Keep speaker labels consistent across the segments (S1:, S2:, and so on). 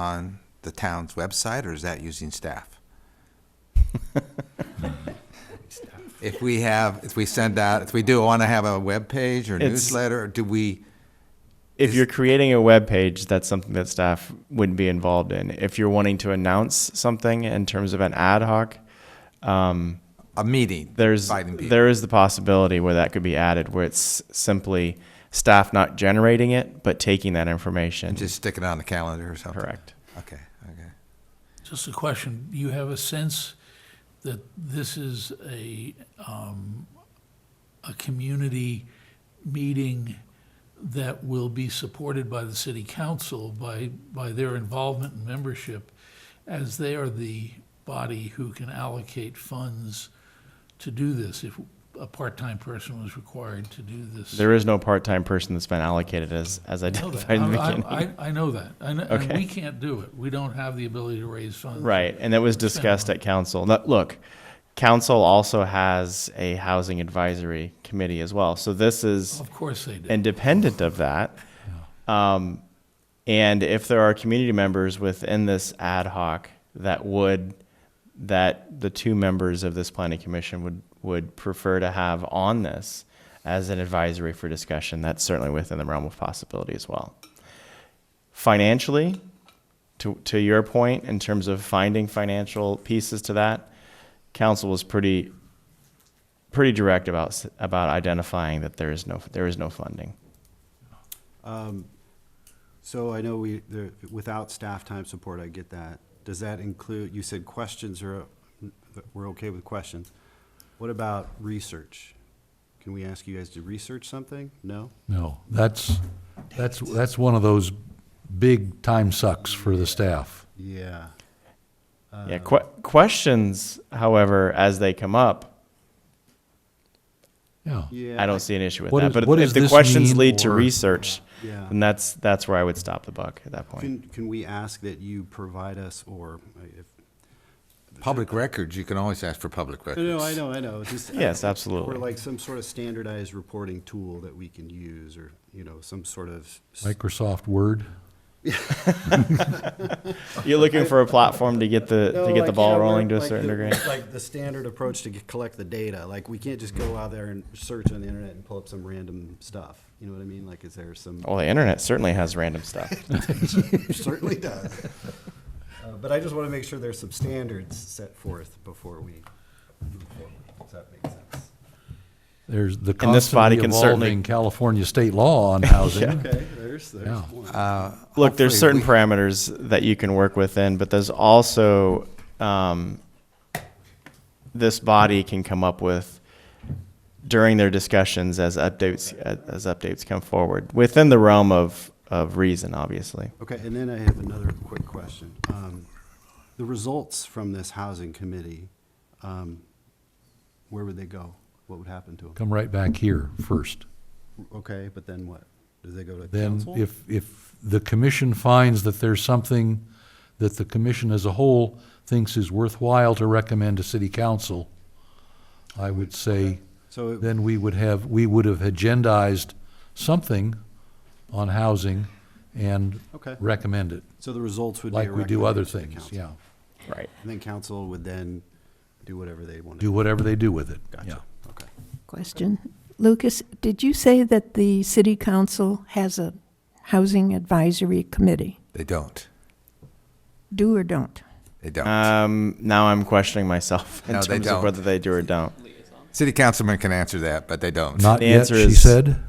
S1: on the town's website, or is that using staff? If we have, if we send out, if we do want to have a web page or
S2: It's-
S1: newsletter, do we,
S2: If
S1: Is-
S2: you're creating a web page, that's something that staff would be involved in. If you're wanting to announce something in terms of an ad hoc, um,
S1: a meeting?
S2: there's
S1: inviting people?
S2: there is the possibility where that could be added, where it's simply staff not generating it but taking that information.
S1: And just stick it on the calendar or something?
S2: Correct.
S1: Okay, okay.
S3: Just a question, do you have a sense that this is a, um, a community meeting that will be supported by the city council, by, by their involvement and membership, as they are the body who can allocate funds to do this, if a part-time person was required to do this?
S2: There is no part-time person that's been allocated as as
S3: I know that.
S2: identified in the
S3: I-
S2: beginning.
S3: I, I know that, I know, and
S2: Okay.
S3: we can't do it, we don't have the ability to raise funds.
S2: Right, and that was discussed at council. Now, Look, council also has a housing advisory committee as well. So this is
S3: Of course they do.
S2: independent of that. Um, and if there are community members within this ad hoc that would, that the two members of this planning commission would, would prefer to have on this as an advisory for discussion, that's certainly within the realm of possibility as well. Financially, to, to your point, in terms of finding financial pieces to that, council was pretty, pretty direct about, s- about identifying that there is no, there is no funding.
S4: So I know we, there, without staff time support, I get that. Does that include, you said questions are, we're okay with questions. What about research? Can we ask you guys to research something? No?
S5: No, that's, that's, that's one of those big time sucks for the staff.
S4: Yeah.
S2: Yeah, que- questions, however, as they come up,
S5: Yeah.
S4: Yeah.
S2: I don't see an issue with
S5: What
S2: that.
S5: is-
S2: but
S5: what
S2: if
S5: does
S2: the
S5: this
S2: questions
S5: mean,
S2: lead to
S5: or-
S2: research,
S4: Yeah.
S2: then that's that's where I would stop the buck at that point.
S4: Can, can we ask that you provide us, or uh, if,
S1: Public records, you can always ask for public records.
S4: no, no, I know, I know, just.
S2: Yes, absolutely.
S4: Or like some sort of standardized reporting tool that we can use, or, you know, some sort of. s-
S5: Microsoft Word.
S2: You're looking for a platform to get the
S4: No,
S2: to get the
S4: like,
S2: ball
S4: yeah, we're-
S2: rolling to a
S4: like
S2: certain
S4: the-
S2: degree.
S4: Like the standard approach to get- collect the data, like we can't just go out there and search on the internet and pull up some random stuff. You know what I mean? Like, is there some?
S2: Well, the internet certainly has random stuff.
S4: Certainly does. Uh, But I just want to make sure there's some standards set forth before we move forward. Does that make sense?
S5: There's the
S2: And this body
S5: constantly
S2: can certainly-
S5: evolving California state law on housing.
S4: Okay, there's, there's
S5: Yeah.
S4: one.
S2: Look, there's
S1: Hopefully
S2: certain
S1: we-
S2: parameters that you can work within, but there's also um, this body can come up with during their discussions as updates as updates come forward within the realm of of reason, obviously.
S4: Okay, and then I have another quick question. Um, The results from this housing committee, um, where would they go? What would happen to them?
S5: Come right back here first.
S4: Okay, but then what? Do they go to
S5: Then
S4: council?
S5: if, if the commission finds that there's something that the commission as a whole thinks is worthwhile to recommend to city council, I would say,
S4: So it-
S5: then we would have, we would have agendized something on housing and
S4: Okay.
S5: recommend it.
S4: So the results would be.
S5: like we do other
S4: recommended to the
S5: things,
S4: council.
S5: yeah.
S2: Right.
S4: And then council would then do whatever they want to.
S5: Do whatever they do with it, yeah.
S4: Gotcha, okay.
S6: Question. Lucas, did you say that the city council has a housing advisory committee?
S1: They don't,
S6: Do or don't?
S1: they don't.
S2: Um, now I'm questioning myself in
S1: No, they
S2: terms
S1: don't.
S2: of whether they do or don't.
S1: City councilman can answer that, but they don't.
S5: Not
S2: The
S5: yet,
S2: answer
S5: she
S2: is-
S5: said.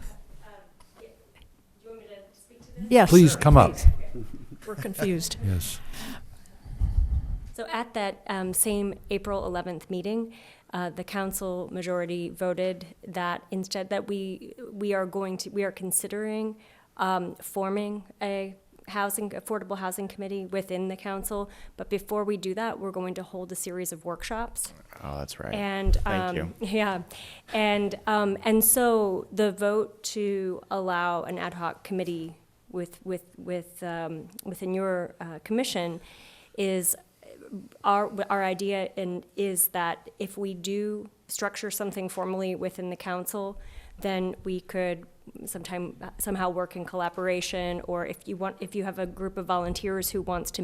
S6: Yes.
S5: Please come up,
S6: We're confused.
S5: yes.
S7: So at that um, same April 11th meeting, uh, the council majority voted that instead that we we are going to we are considering um, forming a housing affordable housing committee within the council. But before we do that, we're going to hold a series of workshops.
S2: Oh, that's right.
S7: And
S2: Thank
S7: um, yeah, and um, and so the vote to allow an ad hoc committee with with with um, within your uh, commission is our our idea and is that if we do structure something formally within the council, then we could sometime somehow work in collaboration. Or if you want, if you have a group of volunteers who wants to